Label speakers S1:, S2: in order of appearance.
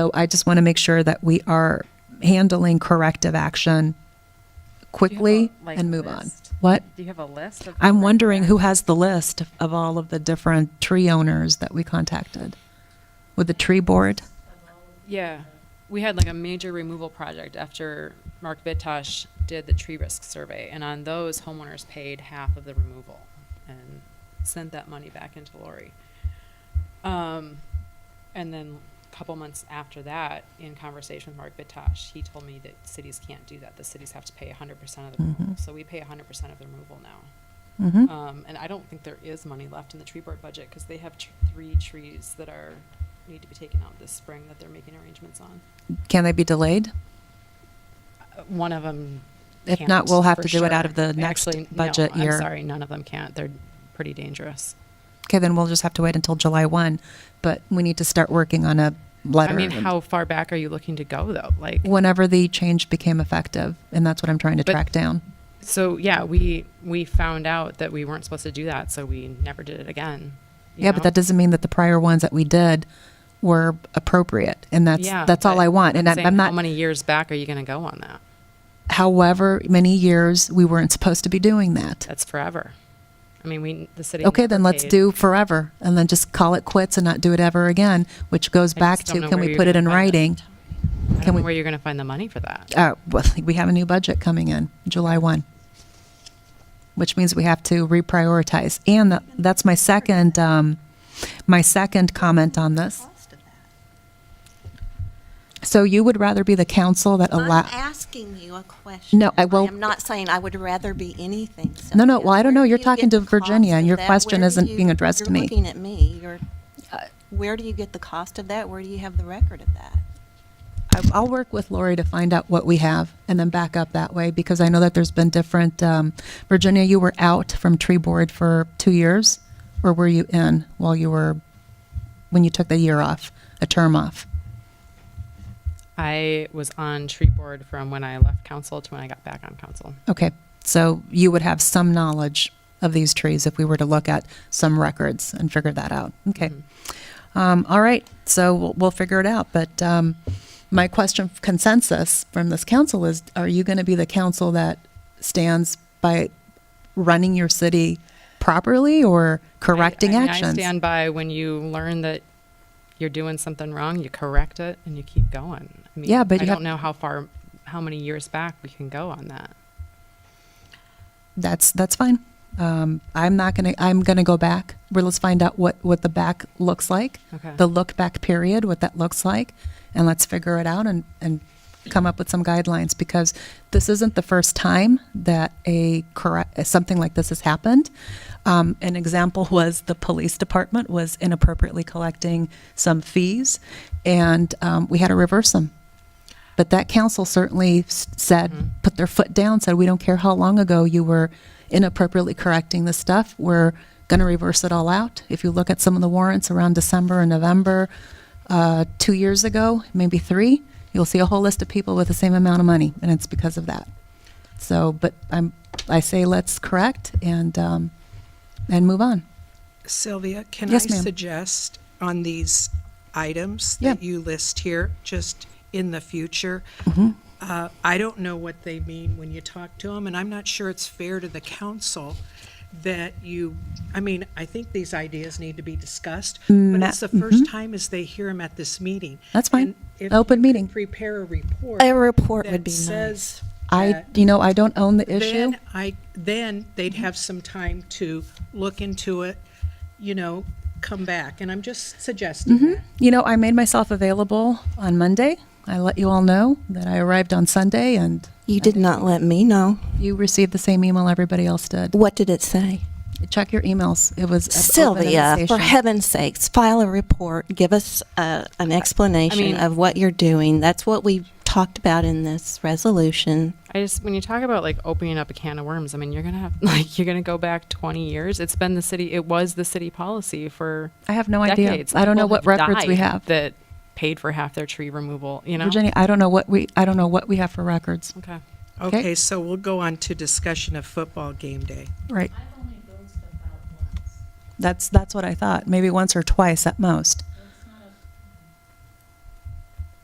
S1: So I just want to make sure that we are handling corrective action quickly
S2: like,
S1: and move on.
S2: list?
S1: What?
S2: Do you have a list of?
S1: I'm wondering who has the list of all of the different tree owners that we contacted? With the tree board?
S3: Yeah, we had like a major removal project after Mark Bitosh did the tree risk survey, and on those homeowners paid half of the removal and sent that money back into Lori. Um, and then a couple months after that, in conversation with Mark Bitosh, he told me that cities can't do that. The cities have to pay 100% of the removal. So we pay 100% of the removal now.
S1: Mm-hmm.
S2: Uh,
S3: Um, and I don't think there is money left in the tree board budget because they have tr- three trees that are need to be taken out this spring that they're making arrangements on.
S1: Can they be delayed?
S3: Uh, One of them.
S1: If not, we'll have to do it out of the next budget year.
S3: I'm sorry, none of them can't. They're pretty dangerous.
S1: Okay, then we'll just have to wait until July 1, but we need to start working on a letter.
S3: I mean, how far back are you looking to go though? Like,
S1: Whenever the change became effective, and that's what I'm trying to
S3: But-
S1: track down.
S3: so yeah, we we found out that we weren't supposed to do that, so we never did it again. you
S1: Yeah, but
S3: know?
S1: that doesn't mean that the prior ones that we did were appropriate, and that's,
S3: Yeah,
S1: that's all
S3: but
S1: I want, and I'm
S3: saying
S1: I'm
S3: How
S1: not,
S3: many years back are you going to go on that?
S1: however many years, we weren't supposed to be doing that.
S3: That's forever. I mean, we the city.
S1: Okay,
S3: never
S1: then let's
S3: paid.
S1: do forever, and then just call it quits and not do it ever again, which goes
S3: I
S1: back
S3: just don't
S1: to,
S3: know
S1: can
S3: where
S1: we
S3: you're
S1: put it in
S3: gonna find
S1: writing?
S3: I
S1: Can
S3: don't
S1: we-
S3: know where you're going to find the money for that.
S1: Uh, well, we have a new budget coming in July 1, which means we have to reprioritize. And tha- that's my second, um, my second comment on this. So you would rather be the council that
S4: I'm
S1: allow,
S4: asking you a question.
S1: No, I will-
S4: am not saying I would rather be anything.
S1: No, no,
S4: Cynthia.
S1: well, I don't know.
S4: Where do
S1: You're
S4: you
S1: talking
S4: get
S1: to
S4: the
S1: Virginia,
S4: cost
S1: and
S4: of
S1: your
S4: that?
S1: question
S4: Where do
S1: isn't being
S4: you-
S1: addressed to me. Uh,
S4: You're looking at me. You're, where do you get the cost of that? Where do you have the record of that?
S1: I- I'll work with Lori to find out what we have and then back up that way because I know that there's been different, um, Virginia, you were out from tree board for two years? Or were you in while you were, when you took the year off, a term off?
S3: I was on tree board from when I left council to when I got back on council.
S1: Okay, so you would have some knowledge of these trees if we were to look at some records and figure that out. Okay.
S3: Mm-hmm.
S1: Um, all right, so we'll, we'll figure it out. But um, my question of consensus from this council is are you going to be the council that stands by running your city properly or correcting
S3: I, I mean,
S1: actions?
S3: I stand by when you learn that you're doing something wrong, you correct it and you keep going. I mean,
S1: Yeah, but
S3: I
S1: you have-
S3: don't know how far, how many years back we can go on that.
S1: that's that's fine. Um, I'm not gonna. I'm gonna go back. Well, let's find out what what the back looks like.
S3: Okay.
S1: The look back period, what that looks like, and let's figure it out and and come up with some guidelines because this isn't the first time that a correct something like this has happened. Um, an example was the police department was inappropriately collecting some fees, and um, we had to reverse them. But that council certainly s- said, put their foot down, said, we don't care how long ago you were inappropriately correcting this stuff. We're going to reverse it all out. If you look at some of the warrants around December and November, uh, two years ago, maybe three, you'll see a whole list of people with the same amount of money, and it's because of that. So, but I'm, I say let's correct and, um, and move on.
S5: Sylvia, can I
S1: Yes, ma'am.
S5: suggest on these items
S1: Yeah.
S5: that you list here, just in the future?
S1: Mm-hmm.
S5: uh, I don't know what they mean when you talk to them, and I'm not sure it's fair to the council that you, I mean, I think these ideas need to be discussed, but
S1: Ma-
S5: it's the first time as they hear them at this meeting.
S1: Mm, mm-hmm. That's fine.
S5: And if
S1: Open
S5: you could
S1: meeting.
S5: Prepare a report.
S4: A report
S5: that
S4: would be nice.
S5: says
S1: I,
S5: that-
S1: you know, I don't own the issue.
S5: then I, then they'd have some time to look into it, you know, come back. And I'm just suggesting that.
S1: You know, I made myself available on Monday. I let you all know that I arrived on Sunday and
S4: You did not let me know.
S1: You received the same email everybody else did.
S4: What did it say?
S1: Check your emails. It was a- open
S4: Sylvia, for
S1: invitation.
S4: heaven's sakes, file a report. Give us uh, an explanation
S3: mean-
S4: of what you're doing. That's what we talked about in this resolution.
S3: I just, when you talk about like opening up a can of worms, I mean, you're going to have, like, you're going to go back 20 years. It's been the city, it was the city policy for
S1: I have no idea.
S3: decades.
S1: I don't know
S3: People
S1: what
S3: have
S1: records we
S3: died
S1: have.
S3: That paid for half their tree removal, you know?
S1: Virginia, I don't know what we I don't know what we have for records.
S3: Okay.
S1: Okay.
S5: Okay, so we'll go on to discussion of football game day.
S1: Right. That's that's what I thought. Maybe once or twice at most.